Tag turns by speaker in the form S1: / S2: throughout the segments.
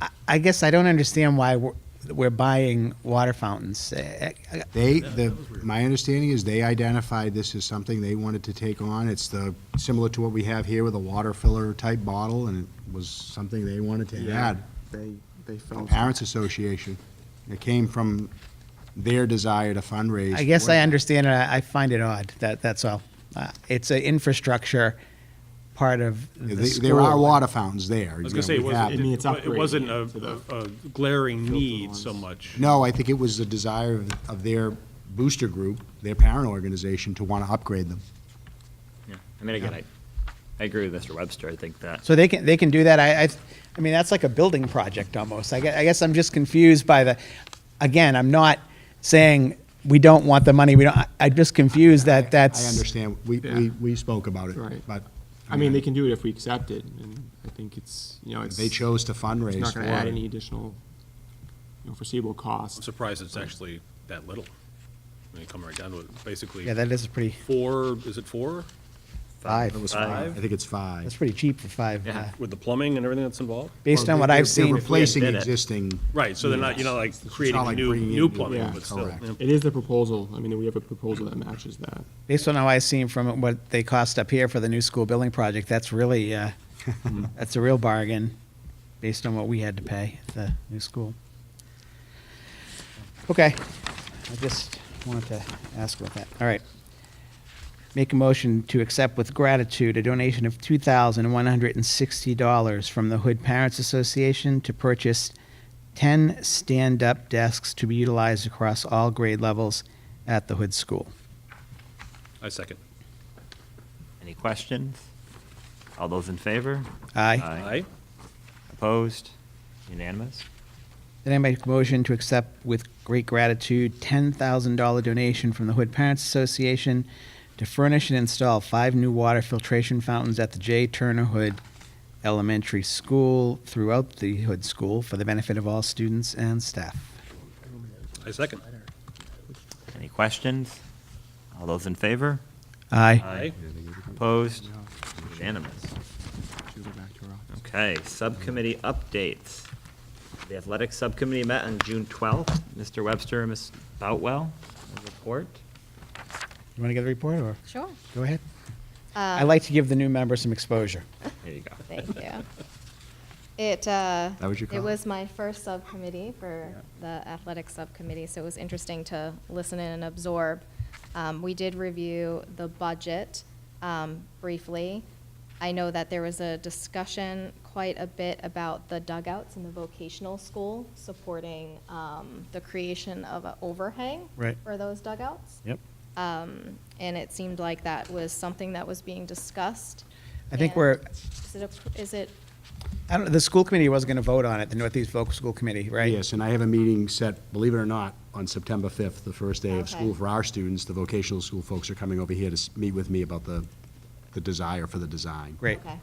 S1: I- I guess I don't understand why we're, we're buying water fountains. Uh, uh,
S2: They, the, my understanding is they identified this as something they wanted to take on. It's the, similar to what we have here with a water filler type bottle, and it was something they wanted to add.
S3: They, they
S2: The
S3: felt.
S2: Parents Association. It came from their desire to fundraise.
S1: I guess I
S2: for it.
S1: understand it. I I find it odd. That, that's all. Uh, It's an infrastructure part of the
S2: They-
S1: school.
S2: There are water fountains there.
S4: I
S2: you
S4: was gonna
S2: know,
S4: say, it
S2: we have
S4: wasn't,
S2: them.
S3: mean, it's
S4: it- it wasn't a,
S3: upgrading to the
S4: a glaring need so
S3: ones.
S4: much.
S2: No, I think it was the desire of- of their booster group, their parent organization, to want to upgrade them.
S5: Yeah, I mean, again, I, I agree with Mr. Webster, I think that,
S1: So they can, they can do that. I, I, I mean, that's like a building project almost. I guess, I guess I'm just confused by the, again, I'm not saying we don't want the money. We don't, I- I'm just confused that that's.
S2: I understand. We, we,
S3: Yeah.
S2: we spoke about it,
S3: Right.
S2: but
S3: I mean, they can do it if we accept it, and I think it's, you know, it's.
S2: they chose to fundraise.
S3: It's not gonna
S2: for
S3: add
S2: it.
S3: any additional, you know, foreseeable
S4: I'm
S3: costs.
S4: surprised it's actually that little. I mean, coming right down to it, basically.
S1: Yeah, that is pretty,
S4: Four, is it four?
S1: five.
S2: It was
S5: Five?
S2: five. I think it's five.
S1: That's pretty cheap for five.
S5: Yeah.
S1: uh,
S4: With the plumbing and everything that's involved?
S1: Based
S2: Well,
S1: on what
S2: they're-
S1: I've
S2: They're
S1: seen,
S2: replacing
S5: did it.
S2: existing.
S4: Right, so they're not, you know, like
S2: It's not
S4: creating
S2: like
S4: new,
S2: bringing in
S4: new
S2: new-
S4: plumbing,
S3: yeah,
S4: but still.
S2: correct.
S4: yeah.
S3: It is the proposal, I mean, we have a proposal that matches that.
S1: based on how I've seen from what they cost up here for the new school building project, that's really, uh, that's a real bargain, based on what we had to pay at the new school. Okay, I just wanted to ask about that. All right. Make a motion to accept with gratitude a donation of two thousand one hundred and sixty dollars from the Hood Parents Association to purchase ten stand-up desks to be utilized across all grade levels at the Hood School.
S4: I second.
S5: any questions? All those in favor?
S1: Aye.
S4: Aye.
S5: Opposed? Unanimous?
S1: Then I make a motion to accept with great gratitude $10,000 donation from the Hood Parents Association to furnish and install five new water filtration fountains at the J. Turner Hood Elementary School throughout the Hood School for the benefit of all students and staff.
S4: I second.
S5: Any questions? All those in favor?
S1: Aye.
S5: Aye. Opposed? Unanimous.
S3: Should we go back to our office?
S5: Okay, subcommittee updates. The athletic subcommittee met on June 12th. Mr. Webster and Ms. Boutwell, a report.
S1: You want to get the report or
S6: Sure.
S1: go ahead? I like to give the new member some exposure.
S5: There you go.
S6: Thank you. It, uh,
S2: That was your
S6: it
S2: comment?
S6: was my first subcommittee for the athletic subcommittee, so it was interesting to listen in and absorb. Um, We did review the budget um, briefly. I know that there was a discussion quite a bit about the dugouts in the vocational school supporting um, the creation of an overhang
S1: Right.
S6: for those dugouts. Um,
S1: Yep.
S6: And it seemed like that was something that was being discussed.
S1: I think
S6: And
S1: we're,
S6: Is it, appro- is it
S1: I don't, the school committee was going to vote on it, the Northeast Vocal School Committee, right?
S2: Yes, and I have a meeting set, believe it or not, on September 5th, the first day of
S6: Okay.
S2: school for our students. The vocational school folks are coming over here to s- meet with me about the, the desire for the design.
S1: Great.
S6: Okay,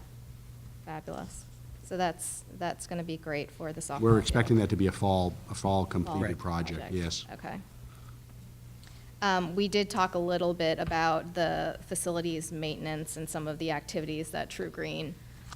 S6: fabulous. So that's, that's going to be great for the sophomore.
S2: We're expecting
S6: year.
S2: that to be a fall, a fall
S6: Fall
S2: completed project, yes.
S6: Okay. Um, We did talk a little bit about the facilities maintenance and some of the activities that True Green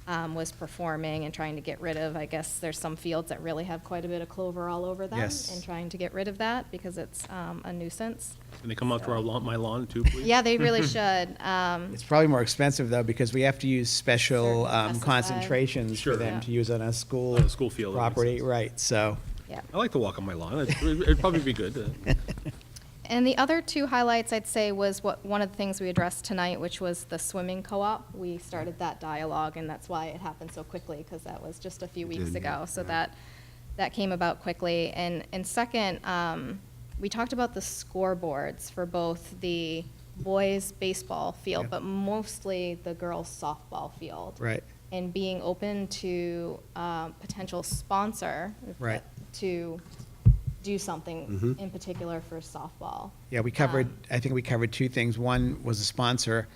S6: um, was performing and trying to get rid of. I guess there's some fields that really have quite a bit of clover all over them.
S1: Yes.
S6: And trying to get rid of that because it's um, a nuisance.
S4: Can they come out to our lawn, my lawn too, please?
S6: Yeah, they really should. Um,
S1: It's probably more expensive though, because we have to use special
S6: Certain
S1: um,
S6: pesticide.
S1: concentrations for
S4: Sure.
S1: them
S6: Yeah.
S1: to use on a school.
S4: On a school field, that makes
S1: Property,
S4: sense.
S1: right, so.
S6: Yeah.
S4: I like to walk on my lawn. It'd- It'd probably be good. uh,
S6: And the other two highlights, I'd say, was what, one of the things we addressed tonight, which was the swimming co-op. We started that dialogue, and that's why it happened so quickly, because that was just a few weeks
S2: did,
S6: ago. So
S2: yeah.
S6: that, that came about quickly. And, and second, um, we talked about the scoreboards for both the boys' baseball
S1: Yeah.
S6: field, but mostly the girls' softball field
S1: Right.
S6: and being open to um, potential sponsor
S1: Right. Mm-hmm.
S6: to do something in particular for softball.
S1: Yeah, we covered,
S6: Um.
S1: I think we covered two things. One was a sponsor,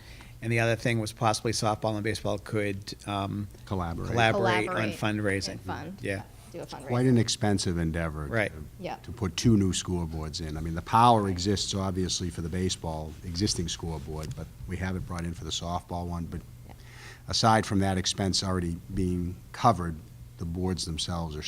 S1: and the other thing was possibly softball and baseball could um,
S2: Collaborate.
S1: collaborate on
S6: Collaborate
S1: fundraising.
S6: and fund.
S1: Yeah,
S6: Do a fundraiser.
S2: Quite an expensive endeavor.
S1: Right.
S2: to-
S6: Yeah.
S2: To put two new scoreboards in. I mean, the power exists obviously for the baseball, existing scoreboard, but we have it brought in for the softball one. But
S6: Yeah.
S2: aside from that expense already being covered, the boards themselves are